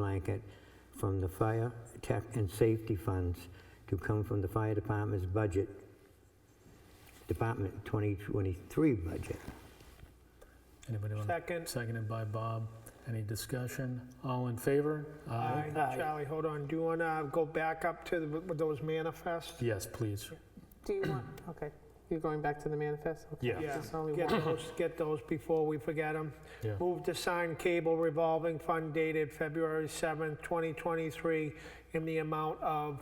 blanket from the fire tech and safety funds to come from the fire department's budget, Department 2023 budget. Anybody want to? Second. Seconded by Bob. Any discussion? All in favor? Aye. Charlie, hold on. Do you want to go back up to the- with those manifests? Yes, please. Do you want, okay, you're going back to the manifest? Okay, Yeah. Yeah, There's only get one. those, get those before we forget them. Yeah. Move to sign cable revolving fund dated February 7th, 2023, in the amount of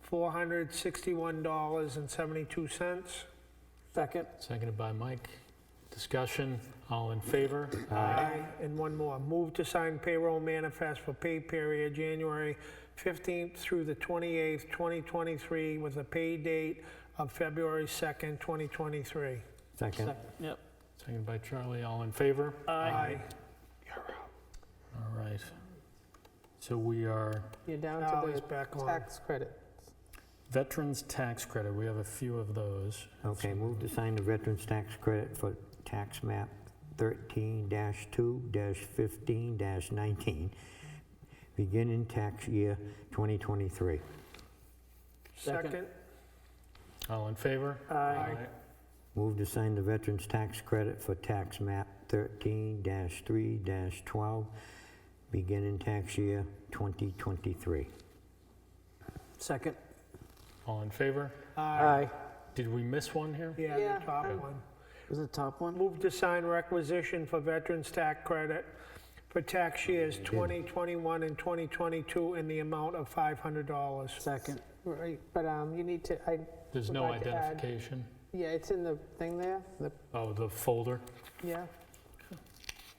$461.72. Second. Seconded by Mike. Discussion? All in favor? Aye. And one more, move to sign payroll manifest for pay period January 15th through the 28th, 2023, with a pay date of February 2nd, 2023. Second. Yep. Seconded by Charlie. All in favor? Aye. All right. So we are You're down Now to he's the back on. tax credit. Veterans Tax Credit. We have a few of those. Okay, move to sign the veterans tax credit for tax map 13-2-15-19, beginning tax year 2023. Second. Second. All in favor? Aye. Move to sign the Veterans Tax Credit for Tax Map 13-3-12, beginning tax year 2023. Second. All in favor? Aye. Did we miss one here? Yeah, Yeah. the top one. Was it top one? Move to sign requisition for veterans tax credit for tax years 2021 and 2022 in the amount of $500. Second. Right, but um, you need to, I, There's no We'd like to add- identification. yeah, it's in the thing there, the, Oh, the folder? yeah.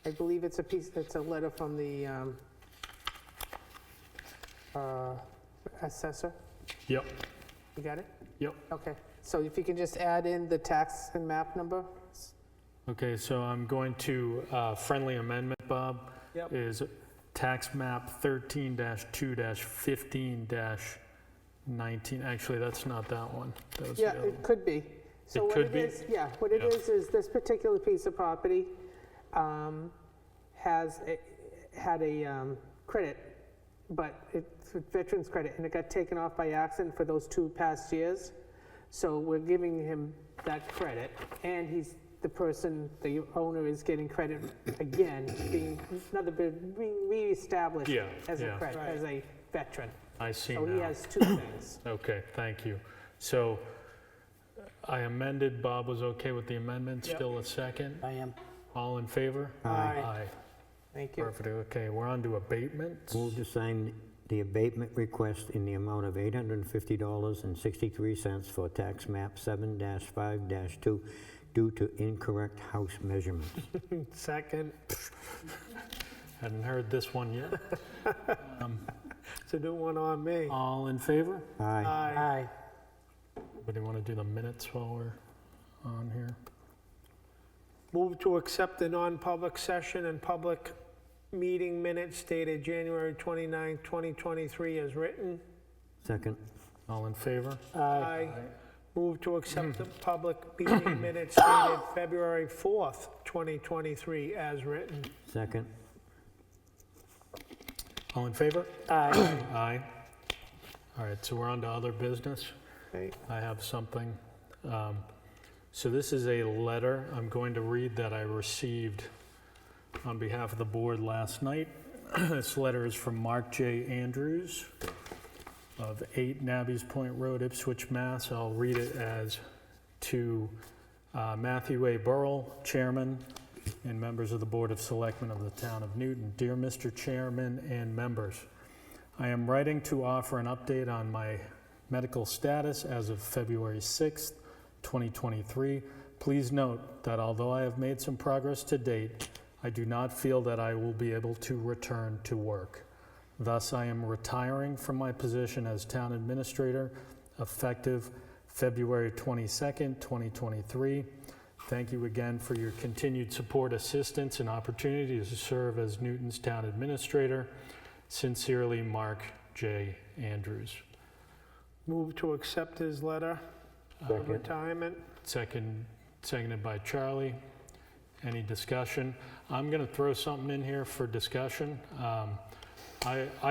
I believe it's a piece, it's a letter from the um, uh, assessor. Yep, You got it? yep. Okay, so if you can just add in the tax and map number? Okay, so I'm going to uh, friendly amendment, Bob. Yep. Is tax map 13-2-15-19. Actually, that's not that one. That was the Yeah, other one. it could be. So It what could it be? is, yeah, what it Yeah. is, is this particular piece of property um, has, a- had a um, credit, but it's a veterans credit, and it got taken off by accident for those two past years. So we're giving him that credit, and he's, the person, the owner is getting credit again, being, another, bit re- reestablished Yeah, as a yeah. credit, Right. as a veteran. I see So he now. has two things. Okay, thank you. So uh, I amended, Bob was okay with the amendment, Yep. still a second? I am. All in favor? Aye. Aye, Thank you. perfect, okay, we're on to abatements. Move to sign the abatement request in the amount of $850.63 for Tax Map 7-5-2 due to incorrect house measurements. Second, Hadn't heard this one yet. it's a new one on me. All in favor? Aye. Aye. Anybody want to do the minutes while we're on here? Move to accept the non-public session and public meeting minutes dated January 29, 2023 as written. Second. All in favor? Aye. Move to accept the public meeting minutes dated February 4th, 2023 as written. Second. All in favor? Aye. Aye. All right, so we're on to other business. Okay. I have something. Um, So this is a letter I'm going to read that I received on behalf of the board last night. This letter is from Mark J. Andrews of 8 Nabby's Point Road, Ipswich, Mass. I'll read it as to uh, Matthew A. Burrell, Chairman, and members of the Board of Selectmen of the Town of Newton. Dear Mr. Chairman and members, I am writing to offer an update on my medical status as of February 6th, 2023. Please note that although I have made some progress to date, I do not feel that I will be able to return to work. Thus, I am retiring from my position as town administrator effective February 22nd, 2023. Thank you again for your continued support, assistance, and opportunity to serve as Newton's town administrator. Sincerely, Mark J. Andrews. Move to accept his letter of Second. retirement. Second, seconded by Charlie. Any discussion? I'm going to throw something in here for discussion. Um, I, I